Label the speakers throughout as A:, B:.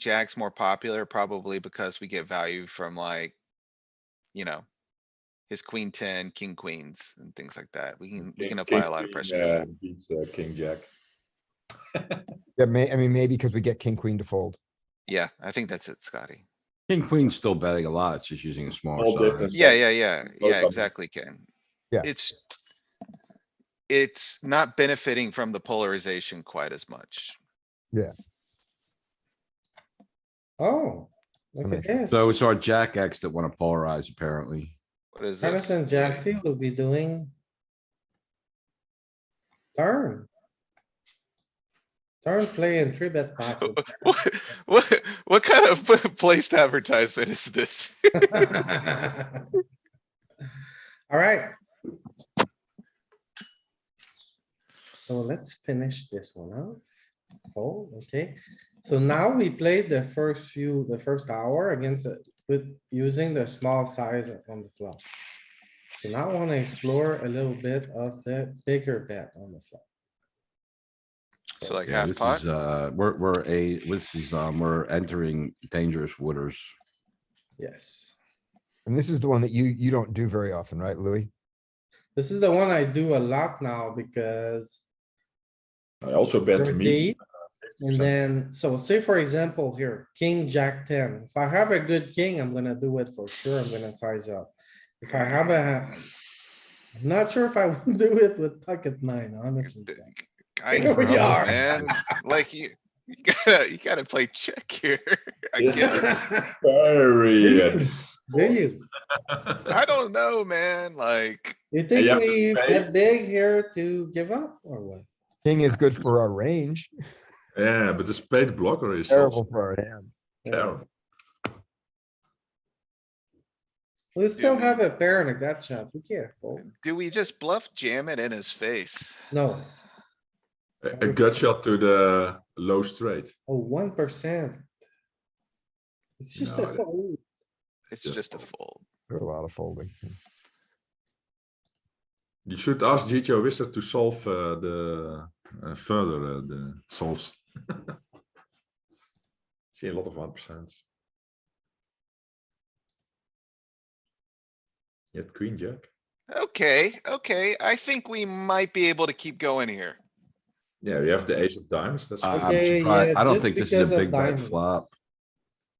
A: Jack's more popular probably because we get value from like, you know, his queen ten, king queens and things like that. We can, we can
B: King-
A: apply a
B: king
A: lot of
B: queen,
A: pressure.
B: uh, Beats uh, king jack.
C: Yeah, may, I mean, maybe because we get king, queen to fold.
A: Yeah, I think that's it, Scotty.
D: King queen's still betting a lot, it's just using a smaller
B: All different.
D: size.
A: Yeah, yeah, yeah,
B: both of
A: yeah,
B: 'em.
A: exactly, Ken.
C: Yeah.
A: It's. It's not benefiting from the polarization quite as much.
E: Oh, look at
C: makes sense.
E: this.
D: So it's our jack X that wanna polarize apparently.
A: What is this?
E: Jonathan Jaffe will be doing. Turn. Turn play and three bet pots.
A: What, what, what kind of placed advertisement is this?
E: Alright. So let's finish this one off. Fold, okay. So now we played the first few, the first hour against, a- with, using the small size on the flop. So now I wanna explore a little bit of the bigger bet on the flop.
A: So like
D: Yeah,
A: half
D: this
A: pot?
D: is, uh, we're, we're a, this is, um, we're entering dangerous waters.
E: Yes.
C: And this is the one that you, you don't do very often, right, Louis?
E: This is the one I do a lot now because
B: I also bet
E: you're
B: me.
E: deep And then, so say for example here, king, jack ten. If I have a good king, I'm gonna do it for sure. I'm gonna size up. If I have a, I'm not sure if I would do it with pocket nine, honestly.
A: I
E: Here
A: know,
E: we are.
A: man. Like you, you gotta, you gotta play check here. I
B: Yes.
A: guess.
B: Very. uh,
E: Do you?
A: I don't know, man, like,
E: You
B: you
E: think
B: have the
E: we bet
B: spades?
E: big here to give up or what?
C: King is good for our range,
B: Yeah, but the spade blocker is also
C: terrible for our hand.
B: terrible.
E: We still
A: we-
E: have a pair and a gut shot. We can't fold.
A: do we just bluff jam it in his face?
E: No,
B: A a gut shot to the low straight.
E: oh, one percent. It's just a
B: No, that-
E: fold.
A: It's
B: Just
A: just a
B: fold.
A: fold.
C: There are a lot of folding.
B: You should ask GTO Wizard to solve uh, the uh, further uh, the solves. See a lot of one percent. Yet queen jack.
A: Okay, okay, I think we might be able to keep going here.
B: Yeah, we have the ace of diamonds.
A: Ah,
B: That's
D: I-
B: good.
D: I'm
E: Okay,
D: surprised,
E: yeah,
D: I don't
E: just
D: think this is
E: because
D: a
E: of
D: big bet
E: diamonds.
D: flop.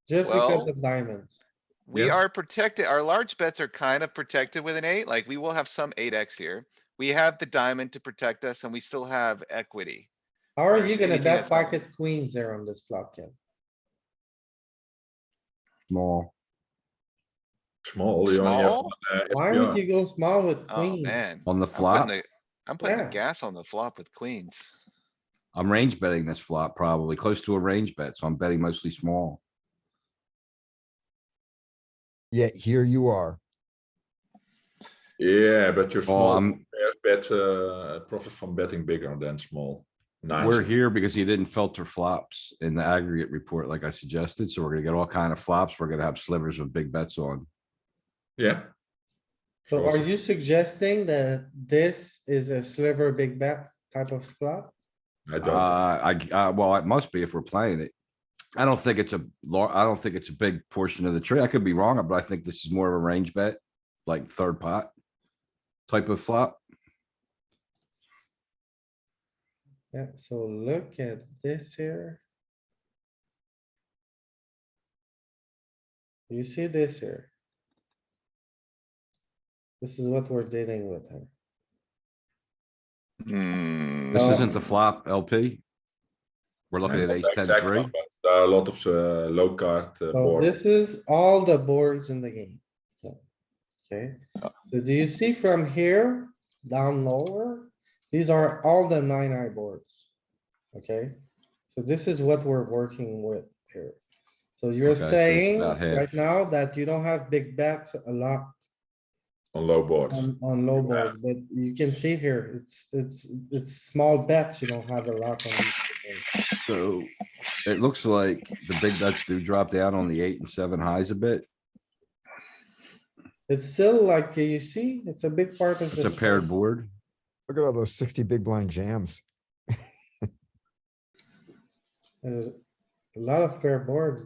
E: Just because
A: Well-
E: of diamonds.
A: We
B: Yeah.
A: are protected, our large bets are kind of protected with an eight, like we will have some eight X here. We have the diamond to protect us and we still have equity.
E: How are
A: Or
E: you
A: is
E: gonna
A: anything
E: bet
A: that's not-
E: pocket queens there on this flop, Ken?
D: Small.
B: small. You only have
A: Small?
B: uh,
E: Why
B: SPR.
E: would you go small with
A: Oh,
E: queens?
A: man.
D: On the
A: I'm putting
D: flop,
A: the, I'm putting the
E: Yeah.
A: gas on the flop with queens.
D: I'm range betting this flop probably, close to a range bet, so I'm betting mostly small.
C: Yet here you are.
B: Yeah, but you're
D: Oh,
B: small.
D: I'm,
B: players bet uh, profit from betting bigger than small. Nice.
D: We're here because he didn't filter flops in the aggregate report like I suggested, so we're gonna get all kind of flops. We're gonna have slivers of big bets on.
B: Yeah.
E: So are
B: Also-
E: you suggesting that this is a sliver big bet type of flop?
B: I
D: Uh,
B: don't.
D: I, uh, well, it must be if we're playing it. I don't think it's a lar- I don't think it's a big portion of the tree. I could be wrong, but I think this is more of a range bet, like third pot. Type of flop.
E: Yeah, so look at this here. You see this here? This is what we're dealing with here.
A: Hmm.
D: This
E: No.
D: isn't the flop LP. We're looking at
B: Not
D: ace
B: the
D: ten
B: exact one,
D: three.
B: but There are a lot of uh, low card uh,
E: So
B: boards.
E: this is all the boards in the game. So, Okay, so do you see from here down lower? These are all the nine eye boards. Okay, so this is what we're working with here. So you're
D: Okay, so it's
E: saying
D: about half.
E: right now that you don't have big bets a lot
B: on low boards.
E: on, on low boards, but you can see here, it's, it's, it's small bets. You don't have a lot on. these boards.
D: So it looks like the big bets do drop down on the eight and seven highs a bit.
E: It's still like, you see, it's a big part of
D: It's a
E: this.
D: paired board.
C: Look at all those sixty big blind jams.
E: Is- a lot of pair boards